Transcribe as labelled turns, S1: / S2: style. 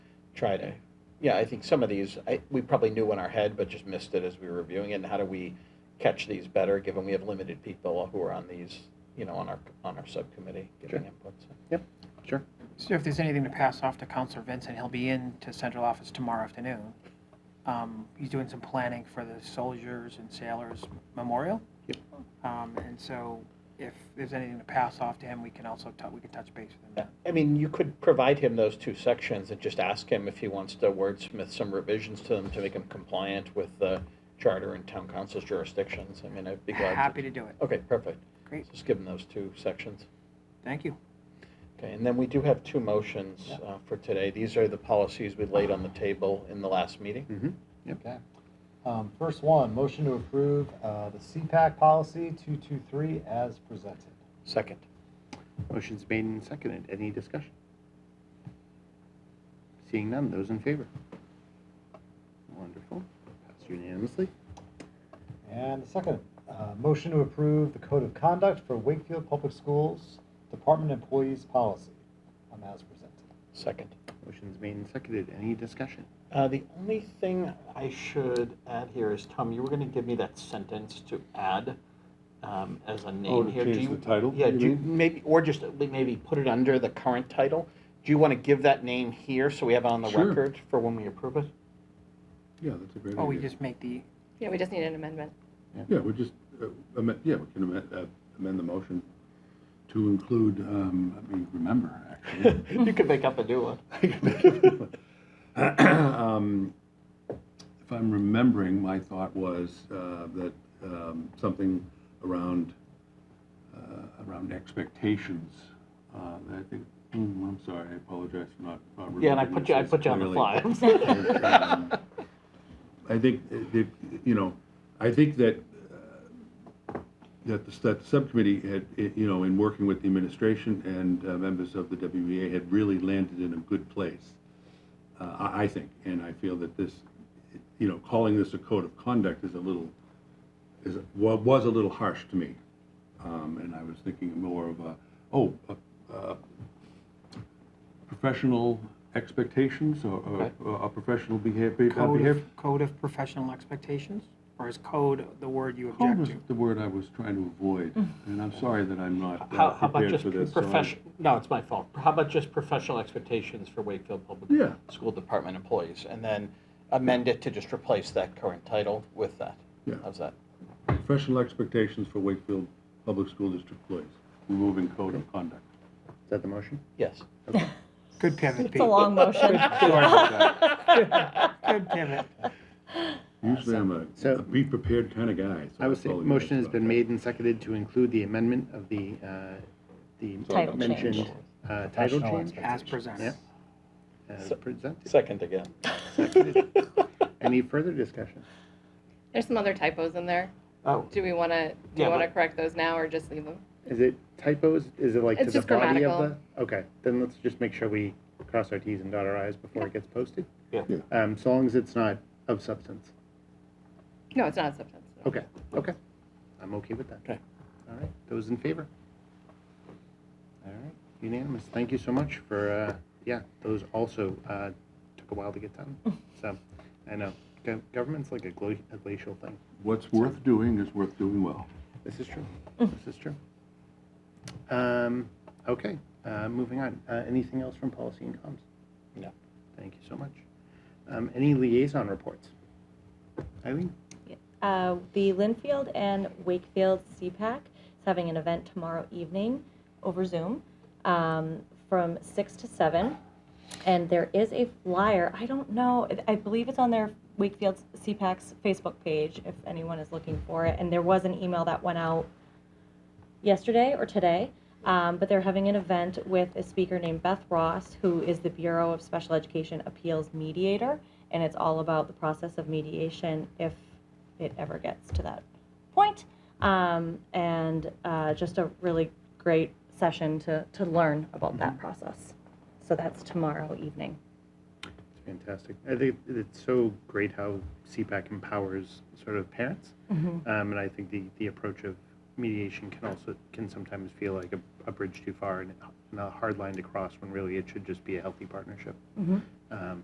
S1: try to, yeah, I think some of these, I, we probably knew in our head, but just missed it as we were reviewing it. And how do we catch these better, given we have limited people who are on these, you know, on our, on our subcommittee giving
S2: Sure.
S1: input? so.
S2: Yep, sure.
S3: So if there's anything to pass off to Counselor Vincent, he'll be in to central office tomorrow afternoon. Um, He's doing some planning for the Soldiers and Sailors Memorial.
S2: Yep.
S3: Um, And so if there's anything to pass off to him, we can also, tou- we can touch base with him.
S1: Yeah,
S3: then.
S1: I mean, you could provide him those two sections and just ask him if he wants to wordsmith some revisions to them to make them compliant with the charter and town council's jurisdictions. I mean, I'd be glad to.
S3: Happy to do it.
S1: Okay, perfect.
S3: Great,
S1: Just give him those two sections.
S3: thank you.
S1: Okay, and then we do have two motions
S2: Yeah.
S1: uh, for today. These are the policies we laid on the table in the last meeting.
S2: Mm-hmm.
S4: Okay. Um, First one, motion to approve uh, the CPAC policy 223 as presented.
S1: Second.
S2: Motion's made and seconded. Any discussion? Seeing none, those in favor? Wonderful. Passed unanimously.
S4: And the second, uh, motion to approve the code of conduct for Wakefield Public Schools Department Employees Policy um, as presented.
S1: Second.
S2: Motion's made and seconded. Any discussion?
S1: Uh, The only thing I should add here is, Tom, you were going to give me that sentence to add um, as a
S5: Oh,
S1: name
S5: to
S1: here. Do
S5: change
S1: you-
S5: the title?
S1: Yeah,
S5: you
S1: do you,
S5: mean?
S1: maybe, or just maybe put it under the current title. Do you want to give that name here so we have it on the
S5: Sure.
S1: record for when we approve it?
S5: Yeah, that's a great idea.
S3: Oh, we just make the,
S6: Yeah, we just need an amendment.
S5: Yeah, we just, uh, amend, yeah, we can amend, uh, amend the motion to include, um, let me remember, actually.
S1: You could make up a new one.
S5: Um, If I'm remembering, my thought was uh, that um, something around, uh, around expectations, uh, that I think, hmm, I'm sorry, I apologize for not. not
S1: Yeah, and I
S5: remembering
S1: put
S5: this
S1: you, I
S5: as
S1: put you on the fly.
S5: clearly. Um, I think, it- it- you know, I think that, uh, that the, that the subcommittee had, it- you know, in working with the administration and uh, members of the WBA had really landed in a good place, uh, I, I think. And I feel that this, you know, calling this a code of conduct is a little, is, wa- was a little harsh to me. Um, And I was thinking more of a, oh, a- a professional expectations or- or,
S1: Okay.
S5: or a professional behavior.
S3: code
S5: behavior-
S3: of, code of professional expectations? Or is code the word you
S5: Code
S3: object
S5: was
S3: to?
S5: the word I was trying to avoid, and I'm sorry that I'm not
S1: Mm. How,
S5: uh,
S1: how about
S5: prepared
S1: just
S5: for this. so I'm-
S1: professional, no, it's my fault. How about just professional expectations for Wakefield Public
S5: Yeah.
S1: School Department employees? And then amend it to just replace that current title with that.
S5: Yeah.
S1: How's that?
S5: Professional expectations for Wakefield Public School District employees, removing code of conduct.
S2: Is that the motion?
S1: Yes.
S3: Good pivot,
S6: It's a
S3: Pete.
S6: long motion.
S3: Good pivot.
S5: Usually I'm a,
S2: So-
S5: a be prepared kind of guy. so
S2: I would say,
S5: apologize
S2: motion has
S5: about
S2: been
S5: that.
S2: made and seconded to include the amendment of the, uh, the
S6: Title
S2: mentioned
S6: change.
S2: uh, title
S4: Professional
S2: change
S3: As presented.
S2: Yep. as
S1: So-
S2: presented.
S1: Second again.
S2: Seconded. Any further discussion?
S6: There's some other typos in there.
S1: Oh,
S6: Do we want to, do
S1: Yeah,
S6: you want to
S1: but-
S6: correct those now or just leave them?
S2: Is it typos? Is it like to
S6: It's
S2: the
S6: just
S2: body of the?
S6: grammatical.
S2: Okay, then let's just make sure we cross our Ts and dot our Is before it gets posted.
S1: Yeah.
S5: Yeah.
S2: Um, so long as it's not of substance.
S6: No, it's not substance. no.
S2: Okay, okay. I'm okay with that.
S1: Okay.
S2: All right, those in favor? All right, unanimous. Thank you so much for, uh, yeah, those also, uh, took a while to get done. So, I know, Gov- government's like a gla- a glacial thing.
S5: What's worth doing is worth doing well.
S2: This is true. This is true. Um, okay, uh, moving on. Uh, anything else from policy and comms?
S1: No.
S2: Thank you so much. Um, any liaison reports? Eileen?
S7: Uh, the Linfield and Wakefield CPAC is having an event tomorrow evening over Zoom um, from 6 to 7. And there is a flyer. I don't know. I- I believe it's on their Wakefield CPAC's Facebook page if anyone is looking for it. And there was an email that went out yesterday or today. Um, but they're having an event with a speaker named Beth Ross, who is the Bureau of Special Education Appeals mediator. And it's all about the process of mediation if it ever gets to that point. Um, and uh, just a really great session to, to learn about that process. So that's tomorrow evening.
S2: It's fantastic. I think it's so great how CPAC empowers sort of parents. Um, and I think the, the approach of mediation can also, can sometimes feel like a, a bridge too far and, and a hard line to cross when really it should just be a healthy partnership.
S7: Mhm.
S2: Um,